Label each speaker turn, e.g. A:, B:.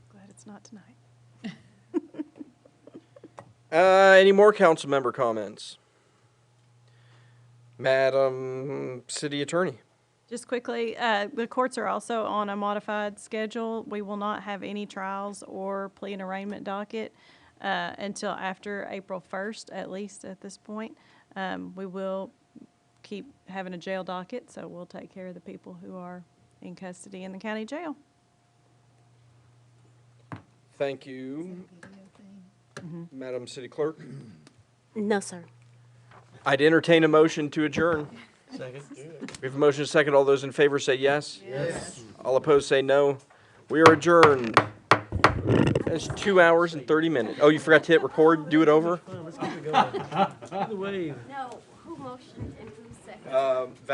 A: It's not tonight.
B: Uh, any more council member comments? Madam City Attorney.
A: Just quickly, uh, the courts are also on a modified schedule. We will not have any trials or plea and arraignment docket uh, until after April 1st, at least at this point. Um, We will keep having a jail docket, so we'll take care of the people who are in custody in the county jail.
B: Thank you, Madam City Clerk.
C: No, sir.
B: I'd entertain a motion to adjourn. Second. We have a motion to second. All those in favor say yes. Yes. All opposed say no. We are adjourned. That's two hours and 30 minutes. Oh, you forgot to hit record? Do it over? Uh,
C: No, who motioned and who seconded?